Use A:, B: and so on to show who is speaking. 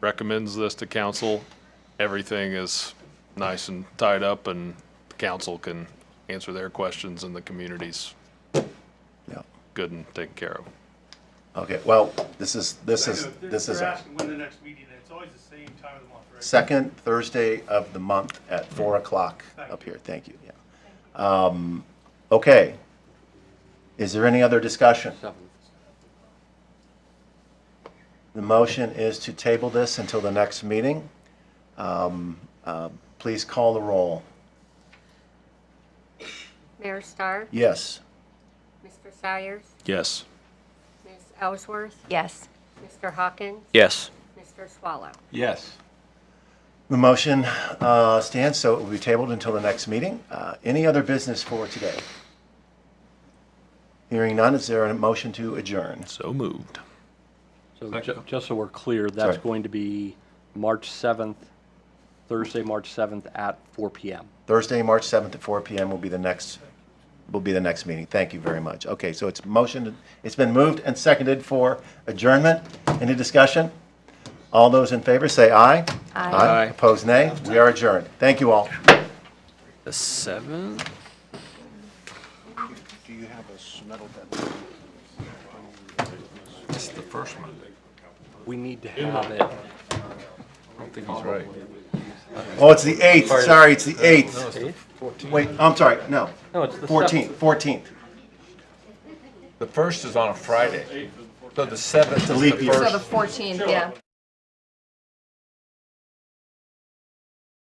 A: recommends this to council. Everything is nice and tied up and the council can answer their questions and the community's
B: Yeah.
A: good and taken care of.
B: Okay, well, this is, this is,
C: They're-
B: this is
C: They're asking when the next meeting is. It's always the same time of the month, right?
B: second Thursday of the month at four o'clock up here. Thank you, yeah. Um, Okay. Is there any other discussion? The motion is to table this until the next meeting. Um, uh, Please call the roll.
D: Mayor Starr,
B: Yes.
D: Mr. Sires,
A: Yes.
D: Ms. Ellsworth,
E: Yes.
D: Mr. Hawkins,
F: Yes.
D: Mr. Swallow.
F: Yes.
B: The motion uh, stands, so it will be tabled until the next meeting. Uh, Any other business for today? Hearing none, is there a motion to adjourn?
A: So moved.
G: So ju- just so we're clear, that's
B: Sorry.
G: going to be March 7th, Thursday, March 7th at 4 PM.
B: Thursday, March 7th at 4 PM will be the next, will be the next meeting. Thank you very much. Okay, so it's motion, it's been moved and seconded for adjournment. Any discussion? All those in favor, say aye.
A: Aye.
B: Opposed, nay. We are adjourned. Thank you all.
F: The seventh?
H: Do you have a metal
I: It's the first one.
G: We need to have it.
I: I don't think he's right.
B: Oh, it's the 8th. Sorry, it's the 8th.
G: See?
B: Wait, I'm sorry, no.
G: No, it's the
B: 14th, 14th.
I: The first is on a Friday. So the seventh
B: a
I: is
B: leap
I: the
B: year.
E: So
I: first.
E: the 14th, yeah.